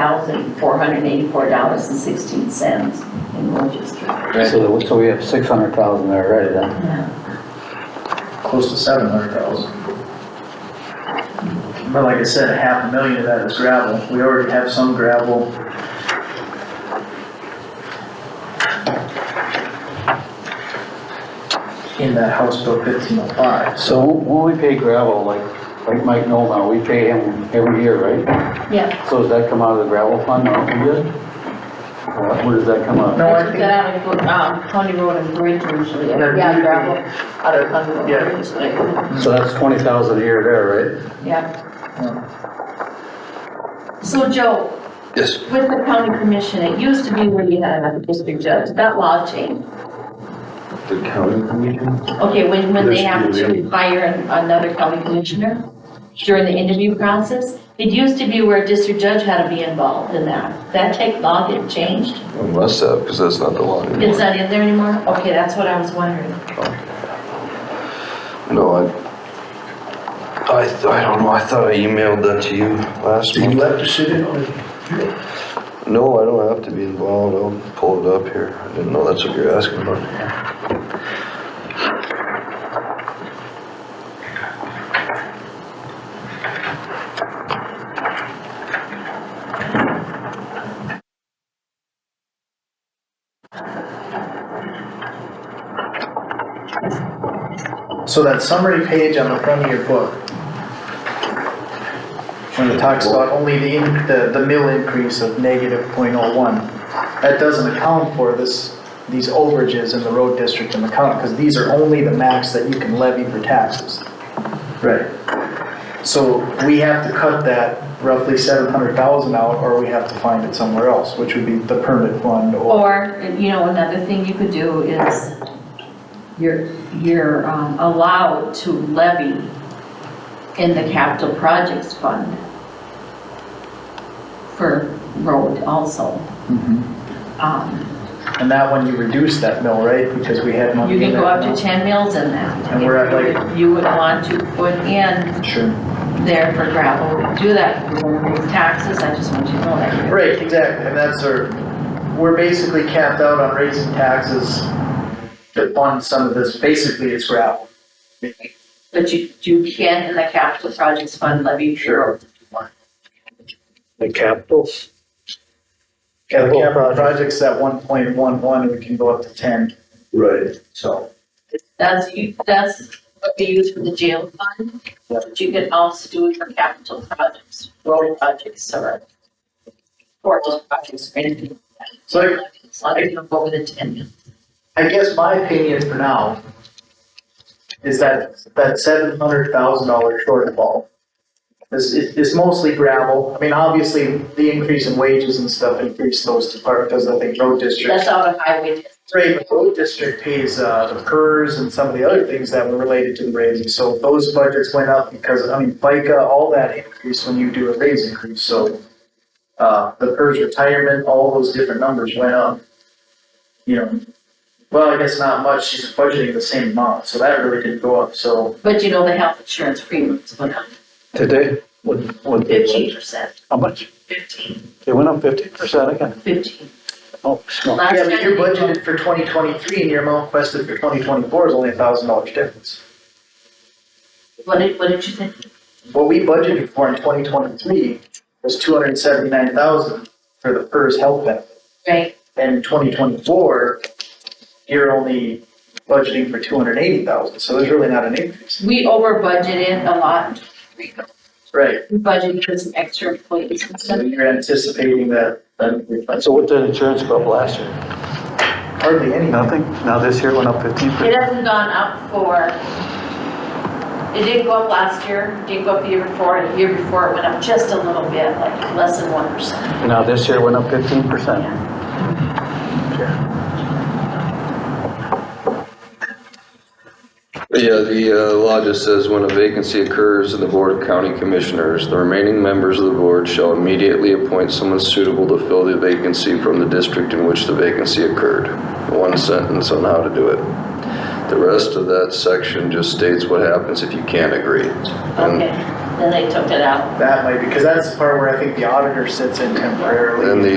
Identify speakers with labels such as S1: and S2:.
S1: thousand, four hundred and eighty-four dollars and sixteen cents in Rochester.
S2: So, so we have six hundred thousand there already then.
S1: Yeah.
S3: close to seven hundred thousand. But like I said, half a million of that is gravel, we already have some gravel. In that House Bill fifteen oh five,
S2: So when we pay gravel, like, like Mike Nolan, we pay him every year, right?
S1: Yeah.
S2: So does that come out of the gravel fund or we did? Or what- Where does that come out?
S3: No, I
S1: They took that out of, um, County Road and Bridge usually,
S3: They're
S1: yeah,
S3: usually-
S1: gravel, out of County Road
S3: Yeah.
S1: and Bridge, like,
S2: So that's twenty thousand a year there,
S1: yeah. So Joe,
S2: right? Yes.
S1: with the county commission, it used to be where you had a district judge, that law changed.
S4: The county commission?
S1: Okay, when, when they
S4: Yes,
S1: have to
S4: yeah.
S1: hire an- another county commissioner during the interview process, it used to be where a district judge had to be involved in that. That take law get changed?
S4: Unless that, because that's not the law
S1: It's
S4: anymore.
S1: not in there anymore? Okay, that's what I was wondering.
S4: No, I, I, th- I don't know, I thought I emailed that to you last
S5: Did you
S4: month.
S5: have to sit in on it?
S4: No, I don't have to be involved, I'll pull it up here. I didn't know that's what you're asking about.
S3: so that summary page on the front of your book. When it talks about only the, in- the, the mill increase of negative point oh one, that doesn't account for this, these overages in the road district and the county, because these are only the max that you can levy for taxes. Right. So we have to cut that roughly seven hundred thousand out, or we have to find it somewhere else, which would be the permit fund or.
S1: Or, you know, another thing you could do is you're, you're um, allowed to levy in the capital projects fund for road also. Um,
S3: And that one you reduce that mill, right, because we had money.
S1: You can
S3: in
S1: go
S3: that
S1: up
S3: mill.
S1: to 10 mils in that.
S3: And we're at like-
S1: You would want to put in
S3: Sure.
S1: there for gravel, do that, we won't remove taxes, I just want you to know that.
S3: Right, exactly, and that's our, we're basically capped out on raising taxes to fund some of this, basically it's gravel.
S1: But you, you can in the capital projects fund levy your road.
S2: The capitals?
S3: Yeah, the
S2: Capital
S3: capital
S2: project.
S3: project's at one point one one, we can go up to ten,
S5: Right.
S3: so.
S1: That's, you- that's what they use for the jail fund, but you can also do it for capital projects, road projects, or port projects, or anything.
S3: So I-
S1: As long as you don't go over the ten.
S3: I guess my opinion for now is that, that seven hundred thousand dollar shortfall is, is mostly gravel. I mean, obviously, the increase in wages and stuff increased those departments, because I think road district.
S1: That's out of highway.
S3: Right, but road district pays, uh, the PERS and some of the other things that were related to the raising, so those budgets went up because, I mean, FICA, all that increased when you do a raise increase, so. Uh, the PERS retirement, all those different numbers went up. You know, well, I guess not much, she's budgeting the same amount, so that really didn't go up, so.
S1: But you know, the health insurance premiums went up
S2: Today? What, what?
S1: fifteen percent,
S2: How much?
S1: fifteen,
S2: It went up fifty percent again.
S1: fifteen.
S2: Oh, smell.
S1: Last
S3: Yeah, but
S1: time
S3: you're
S1: they-
S3: budgeted for twenty twenty-three and your amount requested for twenty twenty-four is only a thousand dollars difference.
S1: What did, what did you think?
S3: What we budgeted for in twenty twenty-three was two hundred and seventy-nine thousand for the PERS health benefit.
S1: Right,
S3: And twenty twenty-four, you're only budgeting for two hundred and eighty thousand, so there's really not an increase.
S1: we over budgeted a lot,
S3: Right.
S1: we budgeted for some extra employees and
S3: So
S1: stuff.
S3: you're anticipating that, that,
S2: So what did insurance go up last year?
S3: hardly any.
S2: Nothing. Now this year went up fifteen
S1: It
S2: percent.
S1: hasn't gone up for, it did go up last year, did go up the year before, and the year before it went up just a little bit, like less than one percent.
S2: Now this year went up fifteen percent.
S4: Yeah, the uh, law just says when a vacancy occurs in the Board of County Commissioners, the remaining members of the board shall immediately appoint someone suitable to fill the vacancy from the district in which the vacancy occurred. One sentence on how to do it. The rest of that section just states what happens if you can't agree. And
S1: Okay, then they took it out.
S3: That might, because that's the part where I think the auditor sits in temporarily.
S4: And the